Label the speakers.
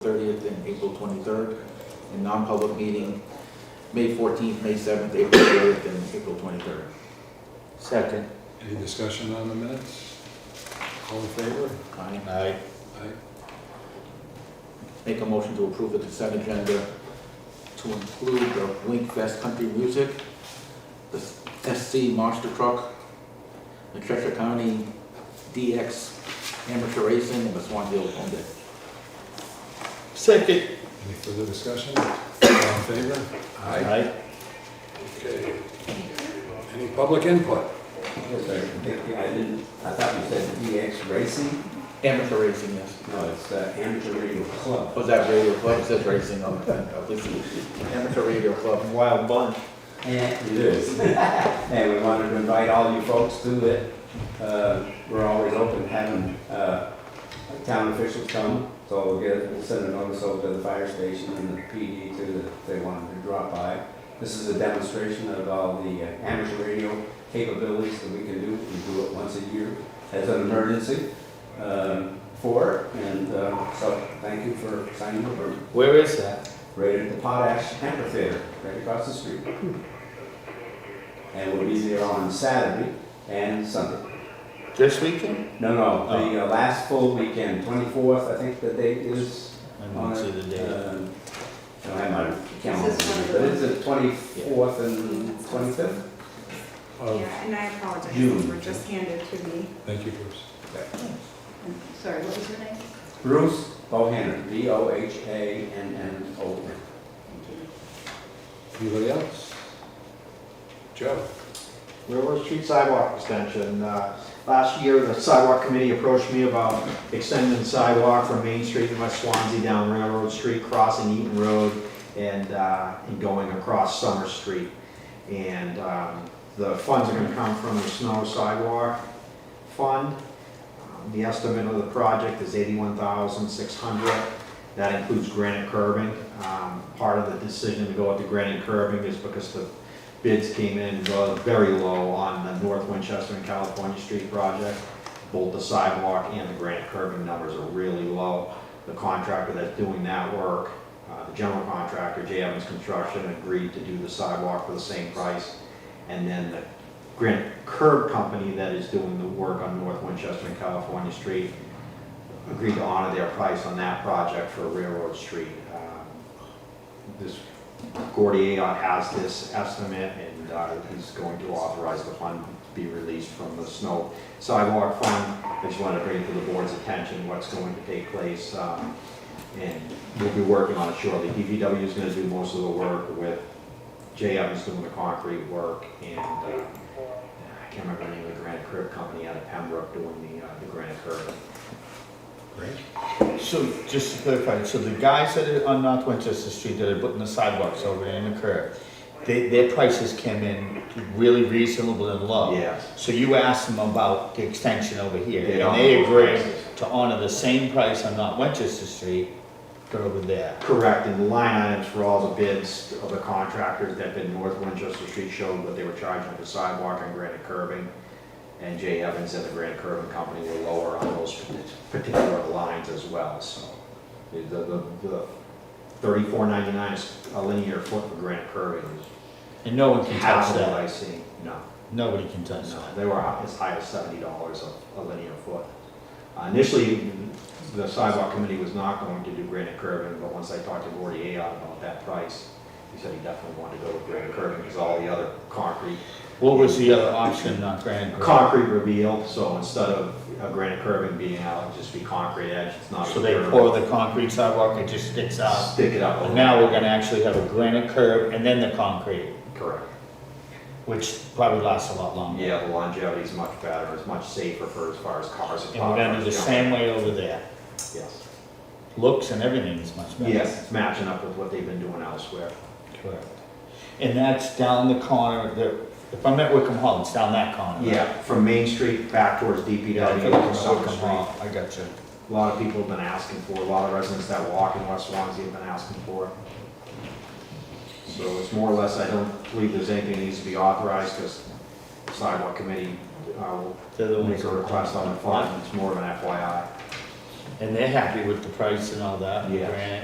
Speaker 1: 23rd, and non-public meeting, May 14th, May 7th, April 8th, and April 23rd.
Speaker 2: Second.
Speaker 3: Any discussion on the minutes? All in favor?
Speaker 1: Aye.
Speaker 2: Aye.
Speaker 3: Aye.
Speaker 1: Make a motion to approve the consent agenda to include the Wink Fest Country Music, the SC Monster Truck, the Cheshire County DX Amateur Racing, and the Swanville Home Day.
Speaker 2: Second.
Speaker 3: Any further discussion? All in favor?
Speaker 2: Aye.
Speaker 3: Okay. Any public input?
Speaker 4: Yes, sir. I didn't, I thought you said DX Racing?
Speaker 1: Amateur racing, yes.
Speaker 4: No, it's uh, Amateur Radio Club.
Speaker 1: Was that radio club? It says racing on the thing, at least amateur radio club.
Speaker 2: Wild bunch.
Speaker 4: And it is. And we wanted to invite all you folks to it. Uh, We're always open having uh, town officials come, so we'll get, we'll send a notice over to the fire station and the PD too, that if they wanted to drop by. This is a demonstration of all the uh, amateur radio capabilities that we can do. We do it once a year as an emergency um, for it. And uh, so thank you for signing up. We're
Speaker 2: Where is that?
Speaker 4: right at the Potash Amphitheater, right across the street. And we'll be there on Saturday and Sunday.
Speaker 2: This weekend?
Speaker 4: No, no, the uh, last full weekend, 24th, I think the date is
Speaker 2: I
Speaker 4: on
Speaker 2: don't
Speaker 4: it.
Speaker 2: see the date.
Speaker 4: Um, Don't have my calendar,
Speaker 5: Is this one of
Speaker 4: but
Speaker 5: the-
Speaker 4: it's the 24th and 25th.
Speaker 3: Oh,
Speaker 5: Yeah, and I apologize,
Speaker 4: June.
Speaker 5: these were just handed to me.
Speaker 3: Thank you, Bruce.
Speaker 5: I'm Sorry, what was your name?
Speaker 4: Bruce Bohannon, B-O-H-A-N-N-O-N.
Speaker 3: Anybody else? Joe?
Speaker 6: Railroad Street sidewalk extension. Uh, Last year, the sidewalk committee approached me about extending the sidewalk from Main Street to West Swansea down Railroad Street, crossing Eaton Road, and, uh, and going across Summer Street. And um, the funds are gonna come from the snow sidewalk fund. Um, The estimate of the project is eighty-one thousand six hundred. That includes granite curbing. Um, Part of the decision to go with the granite curbing is because the bids came in uh, very low on the North Winchester and California Street project. Both the sidewalk and the granite curbing numbers are really low. The contractor that's doing that work, uh, the general contractor, J Evans Construction, agreed to do the sidewalk for the same price. And then the granite curb company that is doing the work on North Winchester and California Street agreed to honor their price on that project for Railroad Street. Um, This Gordy Aon has this estimate, and uh, he's going to authorize the fund to be released from the snow sidewalk fund. I just wanted to bring to the board's attention what's going to take place, um, and we'll be working on it shortly. DPW is gonna do most of the work with J Evans doing the concrete work, and uh, I can't remember the name of the granite curb company out of Pembroke doing the, uh, the granite curb.
Speaker 2: So just to clarify, so the guys that are on North Winchester Street that are putting the sidewalks over there in the curb, they, their prices came in really reasonable and low.
Speaker 6: Yes.
Speaker 2: So you asked them about the extension over here,
Speaker 6: They
Speaker 2: and they
Speaker 6: don't-
Speaker 2: agreed to honor the same price on North Winchester Street, go over there.
Speaker 6: Correct, and the line items for all the bids of the contractors that bid North Winchester Street showed what they were charging for sidewalk and granite curbing. And Jay Evans and the granite curbing company were lower on those particular lines as well, so. The, the, the thirty-four ninety-nine is a linear foot for granite curbing, is
Speaker 2: And no one can
Speaker 6: half
Speaker 2: touch
Speaker 6: of what I
Speaker 2: that,
Speaker 6: see, no.
Speaker 2: nobody can touch
Speaker 6: No,
Speaker 2: that.
Speaker 6: they were as high as seventy dollars a, a linear foot. Uh, Initially, the sidewalk committee was not going to do granite curbing, but once I talked to Gordy Aon about that price, he said he definitely wanted to go with granite curbing, because all the other concrete,
Speaker 2: What was the other option, not granite? curb?
Speaker 6: concrete reveal, so instead of uh, granite curbing being out, it'd just be concrete edge, it's not.
Speaker 2: So they
Speaker 6: curb.
Speaker 2: pour the concrete sidewalk, it just sticks out.
Speaker 6: Stick it up. a
Speaker 2: But
Speaker 6: little.
Speaker 2: now we're gonna actually have a granite curb and then the concrete,
Speaker 6: Correct.
Speaker 2: which probably lasts a lot longer.
Speaker 6: Yeah, the longevity is much better, it's much safer for as far as cars.
Speaker 2: And we're gonna do the same way over there.
Speaker 6: Yes,
Speaker 2: Looks and everything is much better.
Speaker 6: yes, it's matching up with what they've been doing elsewhere.
Speaker 2: Correct. And that's down the corner, the, if I'm at Wickham Hall, it's down that corner. right?
Speaker 6: Yeah, from Main Street back towards
Speaker 2: Yeah, I
Speaker 6: DPW,
Speaker 2: think
Speaker 6: to
Speaker 2: it's
Speaker 6: Summer
Speaker 2: Wickham
Speaker 6: Street.
Speaker 2: Hall, I got you.
Speaker 6: A lot of people have been asking for, it. a lot of residents that walk in West Swansea have been asking for it. So it's more or less, I don't believe there's anything that needs to be authorized, because sidewalk committee uh,
Speaker 2: They're the
Speaker 6: will
Speaker 2: ones
Speaker 6: make a
Speaker 2: that-
Speaker 6: request on the fund, it's more of an FYI.
Speaker 2: And they're happy with the price and all that, and the
Speaker 6: Yeah.
Speaker 2: granite.